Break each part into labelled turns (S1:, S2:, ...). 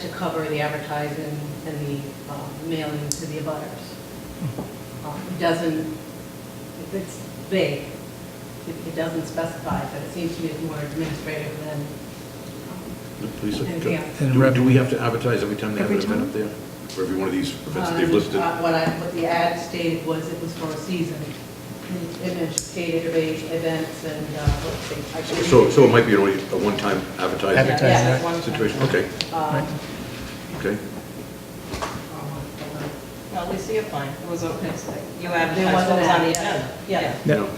S1: to cover the advertising and the uh, mailing to the abutters. Um, It doesn't, if it's vague, it it doesn't specify, but it seems to me it's more administrative than,
S2: The police are-
S1: Anything else?
S2: Do do we have to advertise every time they have an
S3: Every
S2: event
S3: time?
S2: up there? For every one of these events that
S1: um,
S2: they've listed?
S1: uh, what I, what the ad stated was it was for a season. And it stated rate events and, uh, let's see. I
S2: So-
S1: believe-
S2: So, so it might be a a one-time
S1: Yeah,
S2: advertising
S1: yeah, that's one
S2: situation,
S1: time.
S2: okay,
S1: Um,
S3: Right.
S2: okay.
S4: Well, at least you get fine. It was, a- it's like, you advertised
S1: There wasn't
S4: what was on the
S1: an ad,
S4: agenda.
S1: yeah.
S2: you
S3: Yeah,
S2: know.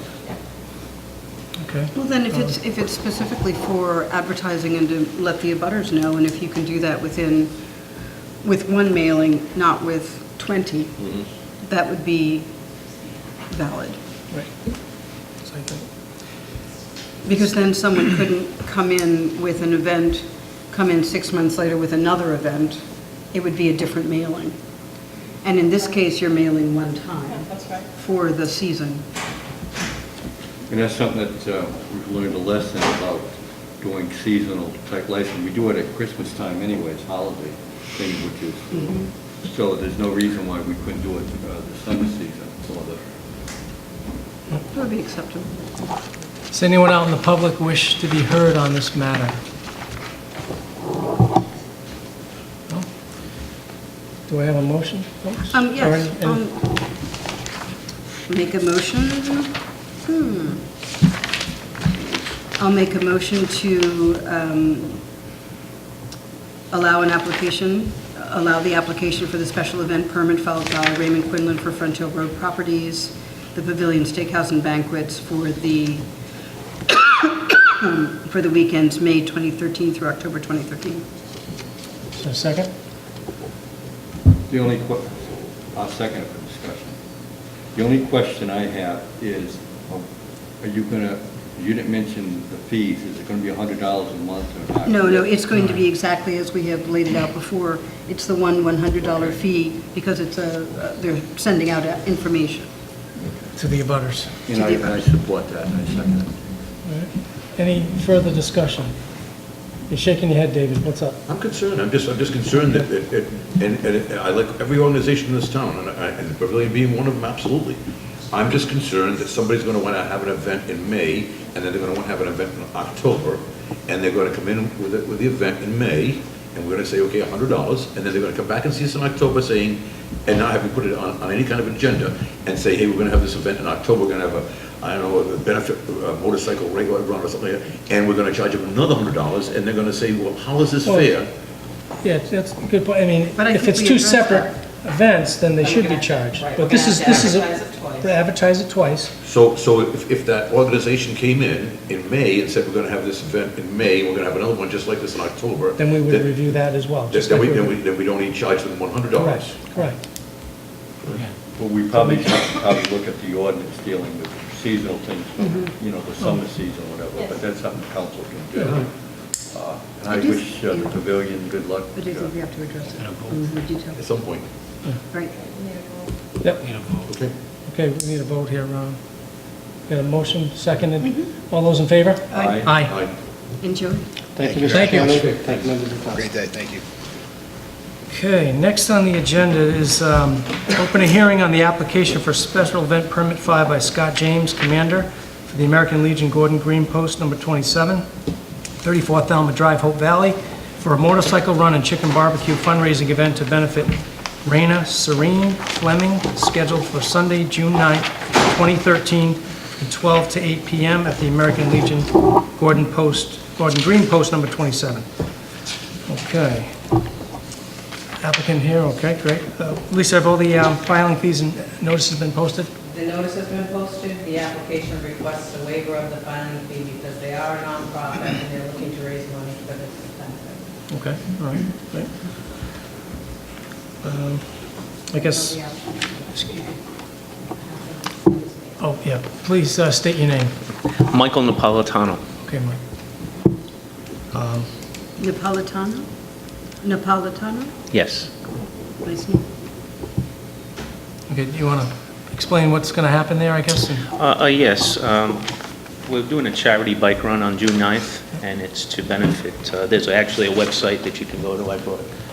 S3: okay.
S5: Well, then if it's, if it's specifically for advertising and to let the abutters know, and if you can do that within, with one mailing, not with 20,
S2: Mhm.
S5: that would be valid.
S3: Right. So I think-
S5: Because then someone couldn't come in with an event, come in six months later with another event. It would be a different mailing. And in this case, you're mailing one
S4: Yeah,
S5: time
S4: that's right.
S5: for the season.
S6: And that's something that uh, we've learned a lesson about doing seasonal type license. We do it at Christmas time anyway, it's holiday thing, which
S5: Mm-hmm.
S6: is, so there's no reason why we couldn't do it uh, the summer season or the
S5: That would be acceptable.
S3: Does anyone out in the public wish to be heard on this matter? No? Do I have a motion, folks?
S5: Um,
S3: Or
S5: yes,
S3: any-
S5: um,
S3: any-
S5: make a motion, hmm. I'll make a motion to, um, allow an application, allow the application for the special event permit filed by Raymond Quinlan for Front Hill Road Properties, the Pavilion Steakhouse and Banquets for the, for the weekends, May 2013 through October 2013. um,
S3: Is there a second?
S6: The only que, I'll second it for discussion. The only question I have is, oh, are you gonna, you didn't mention the fees, is it gonna be a hundred dollars a month or not?
S5: No, no, it's going to be exactly as we have laid it out before. It's the one $100 fee because it's a, uh, they're sending out uh, information.
S3: To the abutters.
S6: And I, and I support that, and I second it.
S3: All right. Any further discussion? You're shaking your head, David, what's up?
S2: I'm concerned, I'm just, I'm just concerned that, that- that- and, and I like every organization in this town, and I- and the Pavilion being one of them, absolutely. I'm just concerned that somebody's gonna wanna have an event in May, and then they're gonna wanna have an event in October, and they're gonna come in with it, with the event in May, and we're gonna say, okay, a hundred dollars, and then they're gonna come back and see us in October saying, and not have we put it on, on any kind of agenda, and say, hey, we're gonna have this event in October, we're gonna have a, I don't know, a benefit, a motorcycle ride run or something, like that, and we're gonna charge them another hundred dollars, and they're gonna say, well, how is this
S3: Well,
S2: fair?
S3: Yeah, that's a good point, I mean,
S5: But I
S3: if
S5: think
S3: it's
S5: we
S3: two
S5: addressed
S3: separate events, then they
S4: Then we're
S3: should be
S4: gonna-
S3: charged.
S4: right, we're
S3: But this
S4: gonna
S3: is,
S4: have to
S3: this is. a-
S4: advertise it twice.
S3: They Advertise it twice,
S2: So, so if, if that organization came in in May and said, we're gonna have this event in May, we're gonna have another one just like this in October.
S3: then we would
S2: then-
S3: review that as well. just
S2: Then
S3: like
S2: we,
S3: we
S2: then we,
S3: would-
S2: then we don't even charge them one hundred dollars.
S3: Correct, correct.
S6: Well, we probably should probably look at the ordinance dealing with seasonal things, you know, the summer season, whatever, but that's something council can do. Uh, And I
S5: I do-
S6: wish uh, the pavilion good luck. uh,
S5: But I think we have to address it Mm-hmm, in more detail.
S2: At some point.
S5: Right.
S3: Yep,
S2: Okay.
S3: okay, we need a vote here, Ron. Got a motion, seconded, all those in favor?
S6: Aye.
S3: Aye.
S5: Enjoy.
S7: Thank you, Mr.
S3: Thank you.
S7: Chairman. Thank you, members of council.
S8: Great day, thank you.
S3: Okay, next on the agenda is um, open a hearing on the application for special event permit filed by Scott James, Commander for the American Legion Gordon Green Post Number 27, 34 Thelma Drive, Hope Valley, for a motorcycle run and chicken barbecue fundraising event to benefit Raina Serene Fleming, scheduled for Sunday, June 9th, 2013, from 12 to 8 p.m. at the American Legion Gordon Post, Gordon Green Post Number 27. Okay applicant here, okay, great. Uh, Lisa, have all the um, filing fees and notices been posted?
S1: The notice has been posted, the application requests a waiver of the filing fee because they are a nonprofit and they're looking to raise money for this benefit.
S3: Okay, all right, great. Um, I guess, oh, yeah, please uh, state your name.
S9: Michael Napolitano.
S3: Okay, Mike. Um,
S5: Napolitano? Napolitano?
S9: Yes.
S5: Nice name.
S3: Okay, do you want to explain what's going to happen there, I guess? and-
S9: Uh, uh, Yes, um, we're doing a charity bike run on June 9th, and it's to benefit, uh, there's actually a website that you can go to, I brought